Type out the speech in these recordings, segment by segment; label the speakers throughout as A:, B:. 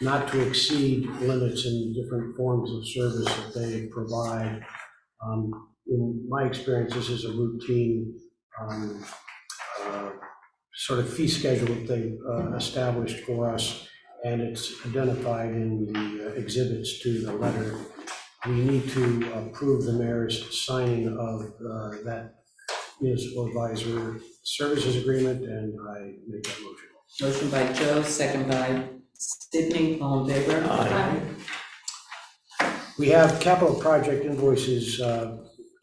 A: not to exceed limits in different forms of service that they provide. Um, In my experience, this is a routine um, uh, sort of fee schedule that they uh, established for us, and it's identified in the uh, exhibits to the letter. We need to approve the mayor's signing of uh, that municipal advisor services agreement, and I make that motion.
B: Motion by Joe, second by Sydney, all in favor?
C: Aye.
A: We have capital project invoices uh,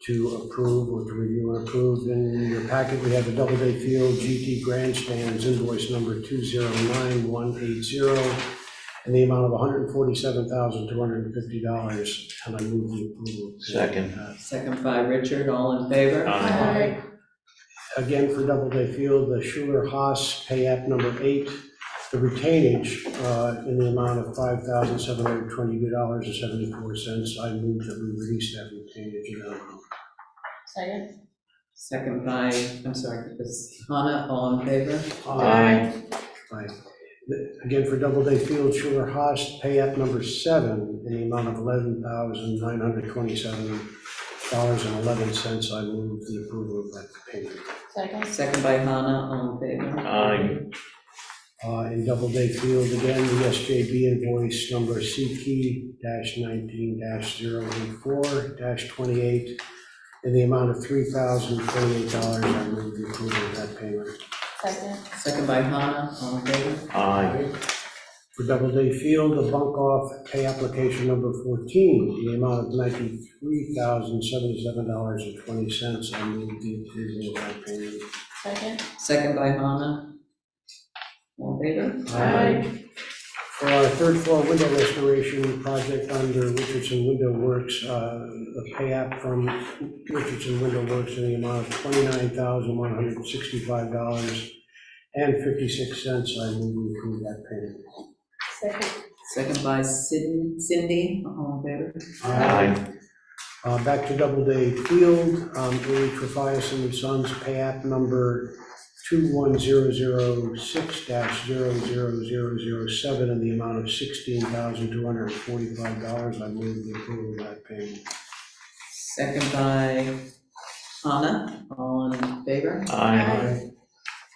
A: to approve or to review and approve. In your packet, we have the Doubleday Field GT Grandstands invoice number 209180 in the amount of $147,250, and I move the approval.
C: Second.
B: Second by Richard, all in favor?
C: Aye.
A: Again, for Doubleday Field, the Schuler Haas Pay App number eight, the retainage uh, in the amount of $5,722.74. I move that we release that retainage in that amount.
D: Second?
B: Second by, I'm sorry, it's Hannah, all in favor?
C: Aye.
A: Again, for Doubleday Field, Schuler Haas, pay app number seven in the amount of eleven thousand nine hundred twenty-seven dollars and eleven cents. I move the approval of that payment.
D: Second?
B: Second by Hannah, all in favor?
C: Aye.
A: Uh, in Doubleday Field, again, the SJB invoice number CT nineteen 84 twenty-eight in the amount of three thousand twenty-eight dollars. I move the approval of that payment.
D: Second?
B: Second by Hannah, all in favor?
C: Aye.
A: For Doubleday Field, the bunk off pay application number 14, the amount of $93,077.20. I move the approval of that payment.
D: Second?
B: Second by Hannah, all in favor?
A: Um, For our third floor window restoration project under Richardson Window Works, uh, the pay app from Richardson Window Works in the amount of $29,165.56. I move we approve that payment.
D: Second?
B: Second by Sydney, Cindy, all in favor?
C: Aye.
A: Uh, Back to Doubleday Field, um, Louis Trafias and Sons, pay app number 21006-00007 in the amount of $16,245. I move the approval of that payment.
B: Second by Hannah, all in favor?
C: Aye.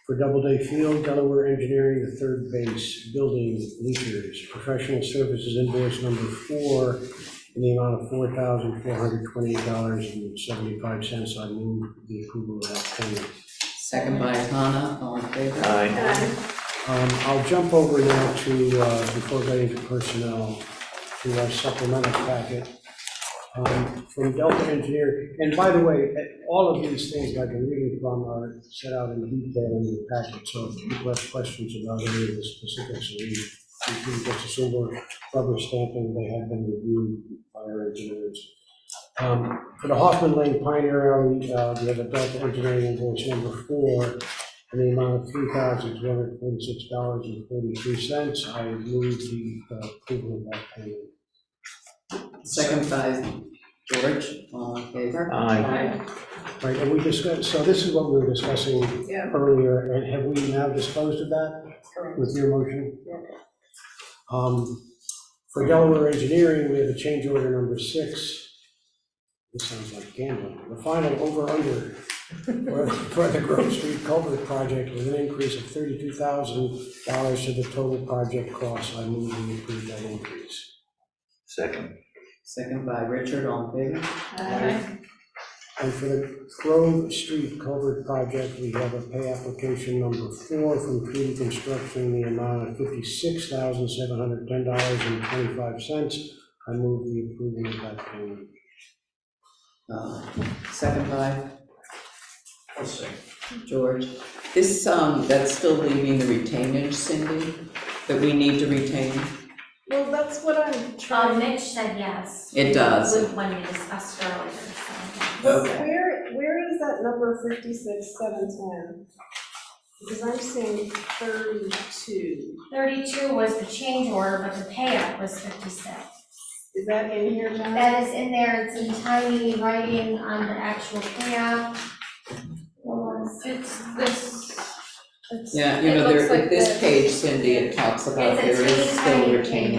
A: For Doubleday Field, Delaware Engineering, the third base, building leakers, professional services invoice number four in the amount of $4,428.75. I move the approval of that payment.
B: Second by Hannah, all in favor?
C: Aye.
A: Um, I'll jump over now to, uh, before getting to personnel, to our supplemental packet um, from Delta Engineer. And by the way, eh, all of these things I've been reading from are set out in detail in your packet, so if people have questions about any of the specifics, we we can get a single rubber stamping, they have been reviewed by our engineers. Um, For the Hoffman Lane Pioneer Alley, uh, we have a Delta Engineering invoice number four in the amount of three thousand two hundred forty-six dollars and forty-three cents. I move the uh, approval of that payment.
B: Second by George, all in favor?
C: Aye.
A: Right, and we discussed, so this is what we were discussing
D: Yeah.
A: earlier, and have we now disposed of that
D: Correct.
A: with your motion?
D: Yeah.
A: Um, For Delaware Engineering, we have a change order number six. This sounds like gambling. The final over-under for- for the Grove Street Culvert Project with an increase of thirty-two thousand dollars to the total project cost. I move we approve that increase.
C: Second.
B: Second by Richard, all in favor?
D: Aye.
A: And for the Grove Street Culvert Project, we have a pay application number four from Treaty Construction in the amount of fifty-six thousand, seven hundred, ten dollars and twenty-five cents. I move the approval of that payment.
B: Uh, Second by? George. This, um, that's still leaving the retainage, Cindy, that we need to retain?
E: Well, that's what I'm
F: Um,
B: Uh,
E: trying,
F: Mitch said yes.
B: It does.
F: With When we discussed earlier, so.
E: Well, where, where is that number fifty-six, seven, ten? Because I'm seeing thirty-two,
F: Thirty-two was the change order, but the payout was fifty-six.
E: is that in here, John?
F: That is in there, it's in tiny writing on the actual payout. Hold on, It's this,
D: It's-
B: Yeah, you
D: it
B: know,
D: looks
B: there,
D: like
B: this
D: this.
B: page, Cindy, it talks about
F: It's a
B: there is
F: teeny
B: still
F: tiny
B: retained.